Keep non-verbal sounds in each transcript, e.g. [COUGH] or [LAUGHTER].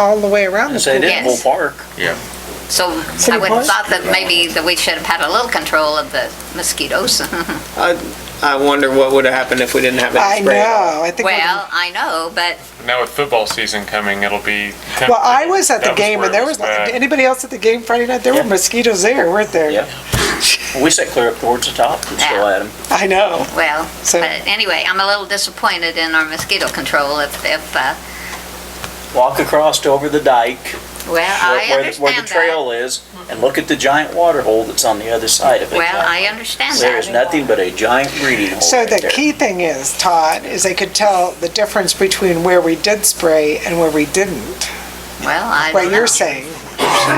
all the way around the As they pool. did in Bull Park. Yes. So City I would Park? have thought that maybe that we should have had a little control of the mosquitoes. [LAUGHS] I wonder what would have happened if we didn't have I any spray. know, I think. it was- Well, I know, but Now with football season coming, it'll be. Well, I was at the That game where and it there was, bad. like anybody else at the game Friday night? There were mosquitoes there, weren't there? Yeah. We sat clear up towards the top and still had them. I know. Well, So- but anyway, I'm a little disappointed in our mosquito control if, if, uh, Walk across over the dike well, where- Uh, I where, the- where the understand that. trail is and look at the giant water hole that's on the other side of it. Well, I understand There is that. nothing but a giant breeding hole So right the there. key thing is, Todd, is they could tell the difference between where we did spray and where we didn't. Well, I What don't know. you're saying,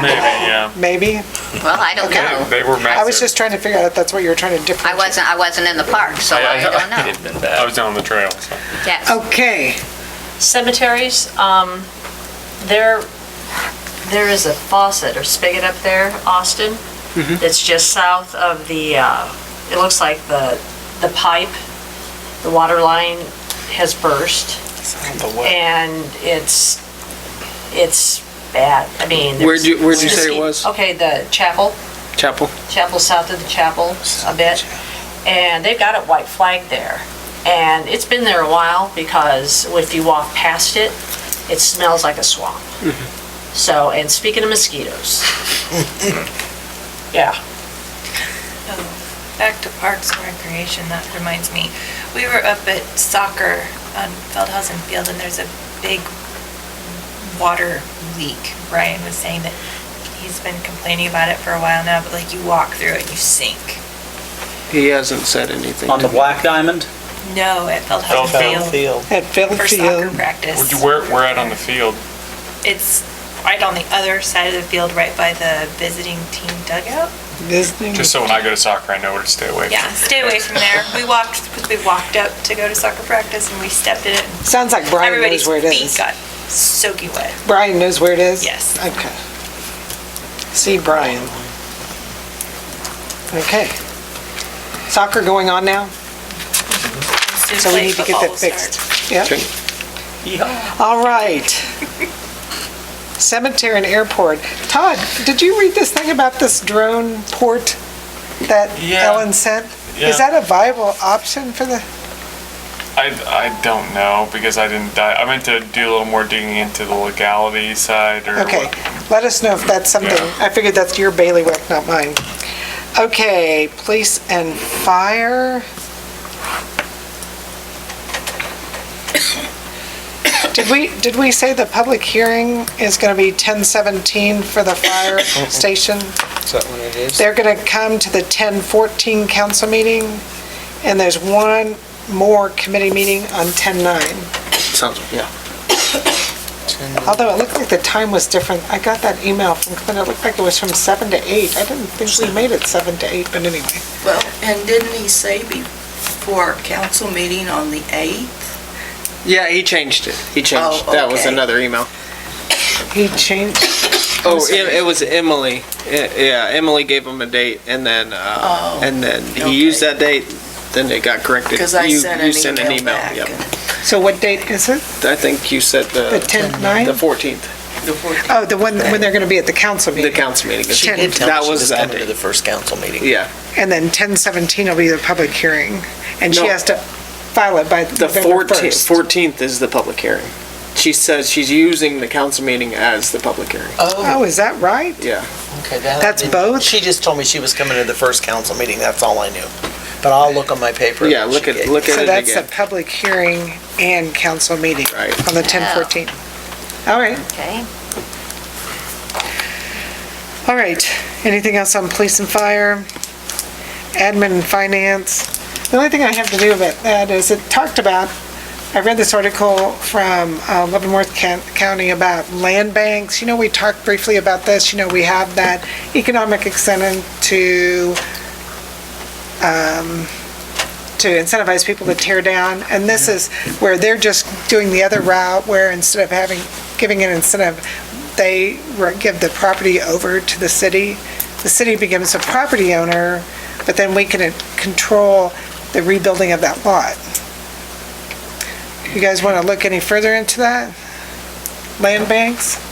Maybe, yeah. maybe? Well, I don't know. They they were massive. I was just trying to figure out if that's what you were trying to I differentiate. wasn't, I wasn't in the park, so I don't know. I was down the trail. so. Yes. Oh. Okay, Cemeteries, um, there, there is a faucet or spigot up there, Austin. Mm-hmm. It's just south of the, uh, it looks like the, the pipe, the water line has burst. And it's, it's bad. I mean. there's Where'd you- where'd you say it mosquito- was? Okay, the chapel, Chapel. chapel south of the chapel a bit. And they've got a white flag there. And it's been there a while because if you walk past it, it smells like a swamp. So, and speaking of [LAUGHS] mosquitoes. Yeah, Back to Parks and Recreation, that reminds me. We were up at soccer on Feldhausen Field and there's a big water leak. Brian was saying that he's been complaining about it for a while now, but like you walk through it and you sink. He hasn't said anything. On the to me. Black Diamond, No, at Feldhausen Field at Phil for soccer Field, Would practice. you- Where, where at on the field? It's right on the other side of the field, right by the visiting team dugout. visiting, Just so when I go to soccer, I know where to stay away. Yeah, [LAUGHS] stay away from there. We walked, because we walked up to go to soccer practice and we stepped in it. and sounds like Brian knows Everybody's where it feet is. got soaking wet. Brian knows where it is? Yes. Okay. See Brian. Okay. Soccer going on now? So we need to get that fixed. Yeah. Okay. All right. Cemetery and airport. Todd, did you read this thing about this drone port that Yeah. Ellen sent? Is Yeah. that a viable option for the, I, I don't know because I didn't die. I meant to do a little more digging into the legality side or okay, what- let us know if that's something, Yeah. I figured that's your bailiwick, not mine. Okay, police and fire. Did we, did we say the public hearing is gonna be 10:17 for the [COUGHS] fire station? Uh-uh. Is that what it is? They're going to come to the 1014 council meeting, and there's one more committee meeting on 109. Sounds, yeah. Although it looked like the time was different. I got that email from Clinton, it looked like it was from 7 to 8. I didn't think we made it 7 to 8, but anyway. Well, and didn't he say before council meeting on the 8th? Yeah, he changed it. He changed. Oh, That was okay. another email. He changed, Oh, it, it was Emily. I- Yeah, Emily gave him a date and then, uh, Oh, and then he used that date, then it got corrected. Because I You- you sent an email back. Yep. so what date is it? I think you said The the, 10th, the 9? fourteenth, The 14th. Oh, the one, when they're going to be at the council the meeting. council meeting. She did That tell That was was that coming date. to the first council meeting. Yeah, And then 1017 will be the public hearing, and she No. has to file it by the November fourteenth, 1st. fourteenth is the public hearing. She says she's using the council meeting as the public hearing. Oh, Oh, is that right? Yeah, okay. that I that's didn't- both? She just told me she was coming to the first council meeting, that's all I knew. But I'll look on my paper. yeah, that look she at, gave look me. at So it that's a again. public hearing and council meeting. Right. On the 1014. All right, Okay. all right. Anything else on police and fire? Admin and finance? The only thing I have to do about that is it talked about, I read this article from uh, Leavenworth Can- County about land banks. You know, we talked briefly about this, you know, we have that economic incentive to, um, to incentivize people to tear down, and this is where they're just doing the other route, where instead of having, giving an incentive, they re- give the property over to the city. The city becomes a property owner, but then we can uh, control the rebuilding of that lot. You guys want to look any further into that? Land banks?